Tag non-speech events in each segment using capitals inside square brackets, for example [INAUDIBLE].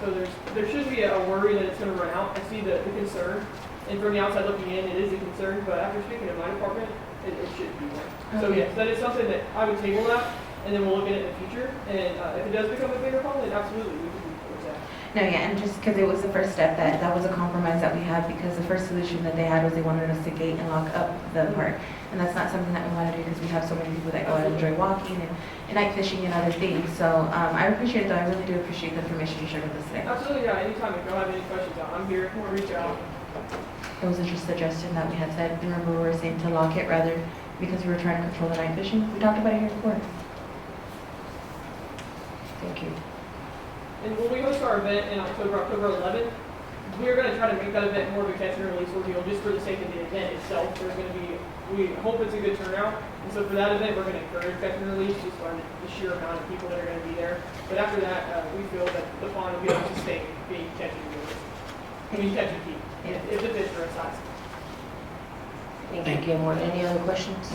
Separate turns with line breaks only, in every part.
So there's, there should be a worry that it's gonna run out. I see the, the concern. And from the outside looking in, it is a concern, but after speaking to my department, it, it should be one. So
Okay.
yes, that is something that I would table that, and then we'll look at it in the future. And, uh, if it does become a bigger problem, then absolutely, we can do that.
No, yeah, and just because it was the first step, that, that was a compromise that we had because the first solution that they had was they wanted us to gate and lock up the park. And that's not something that we want to do because we have so many people that go out and enjoy walking and, and night fishing and other things. So, um, I appreciate it though, I really do appreciate the information you shared with us today.
Absolutely, yeah, anytime. If y'all have any questions, I'm here. If you wanna reach out,
It was just a suggestion that we had said, remember we were saying to lock it rather because we were trying to control the night fishing. We talked about it here before. Thank you.
And when we host our event in October, October 11th, we're going to try to make that event more of a catch and release ordeal just for the sake of the event itself. There's going to be, we hope it's a good turnout. And so for that event, we're going to encourage catch and release just by the- the sheer amount of people that are going to be there. But after that, uh, we feel that the pond will be able to sustain being catch and release. I mean, catch and keep, if- if the fish are size.
Thank you, Gilmore. Any other questions?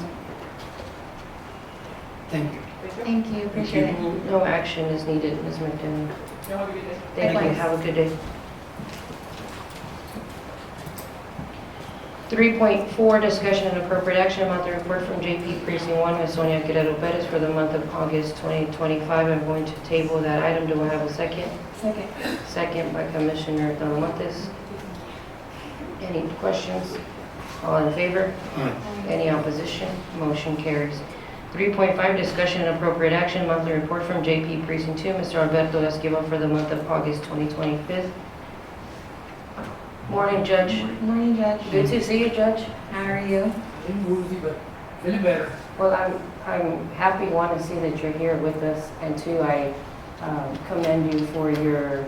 Thank you.
Thank you.
Thank you, appreciate it.
No action is needed, Ms. McDaniel.
Y'all have a good day.
Thank you.
Likewise.
Have a good day. 3.4, discussion and appropriate action about the report from JP Precinct 1 with Sonia Guerrero Perez for the month of August 2025. I'm going to table that item. Do I have a second?
Second.
Second by Commissioner Talamontes. Any questions? All in favor?
Aye.
Any opposition? Motion carries. 3.5, discussion and appropriate action, monthly report from JP Precinct 2, Mr. Alberto Esquivel for the month of August 2025. Morning, Judge.
Morning, Judge.
Good to see you, Judge.
How are you?
Been woozy, but feeling better.
Well, I'm, I'm happy, one, to see that you're here with us, and two, I um, commend you for your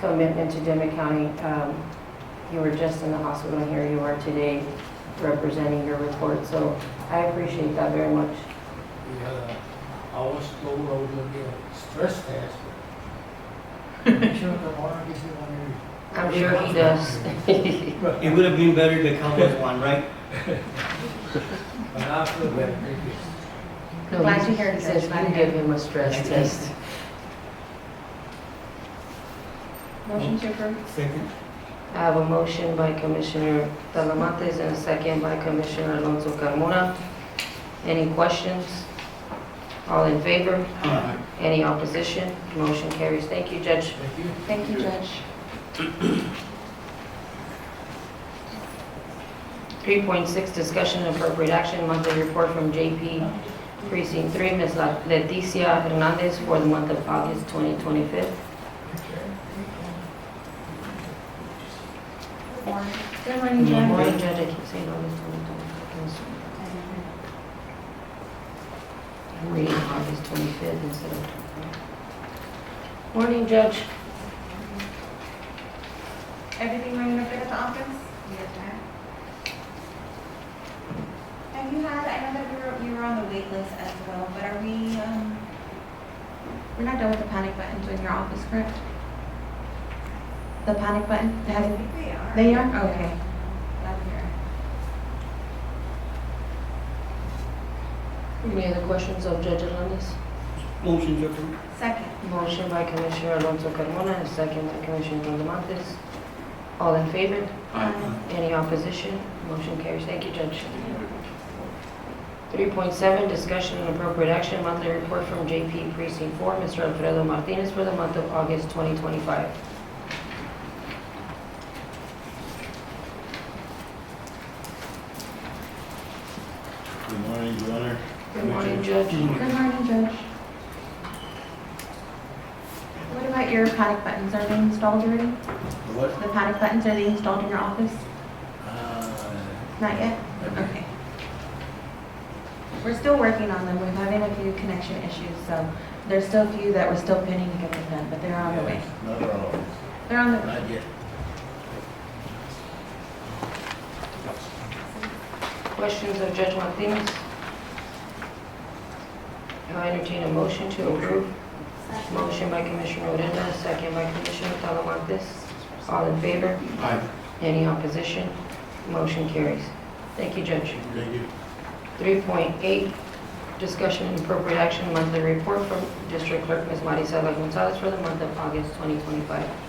commitment to Demet County. Um, You were just in the hospital, and here you are today representing your report, so I appreciate that very much.
We had a, I was told I was gonna get a stress test. but I'm Sure, tomorrow I get it on here.
I'm sure he does.
It would have been better to come with one, right?
[LAUGHS] But I feel better, thank you.
Glad to hear it,
He says
Judge. Glad
you
to hear
give him a stress test.
Motion to approve.
Second.
I have a motion by Commissioner Talamantes and a second by Commissioner Alonso Carmona. Any questions? All in favor?
Aye.
Any opposition? Motion carries. Thank you, Judge.
Thank you.
Thank you, Judge.
3.6, discussion and appropriate action, monthly report from JP Precinct 3, Ms. La- Leticia Hernandez for the month of August 2025.
Good morning,
Good
Judge.
morning, Judge. I keep saying August 2025. I'm reading August 25th instead of 25th. Morning, Judge.
Everything running over at the office? Yes, ma'am. Have you had, I know that we were, you were on the wait list as well, but are we, um,
We're not done with the panic buttons in your office, correct? The panic button, it
I
has,
think we are.
they are, okay.
Up here.
Any other questions of Judge Hernandez?
Uh, Motion to approve.
Second.
Motion by Commissioner Alonso Carmona, and second by Commissioner Talamantes. All in favor?
Aye.
Any opposition? Motion carries. Thank you, Judge. 3.7, discussion and appropriate action, monthly report from JP Precinct 4, Mr. Alfredo Martinez for the month of August 2025.
Good morning, Your Honor.
Good morning, Judge.
Good morning, Judge. What about your panic buttons, are they installed already?
What?
The panic buttons, are they installed in your office?
Uh,
Not yet? Okay. We're still working on them, we're having a few connection issues, so there's still a few that we're still pinning to get them done, but they're on the way.
Not at all,
They're on the way.
not yet.
Questions of Judge Martinez? I entertain a motion to approve. Motion by Commissioner Odena, second by Commissioner Talamontes. All in favor?
Aye.
Any opposition? Motion carries. Thank you, Judge.
Thank you.
3.8, Discussion and appropriate action, monthly report from District Clerk Ms. Marisela Gonzalez for the month of August 2025.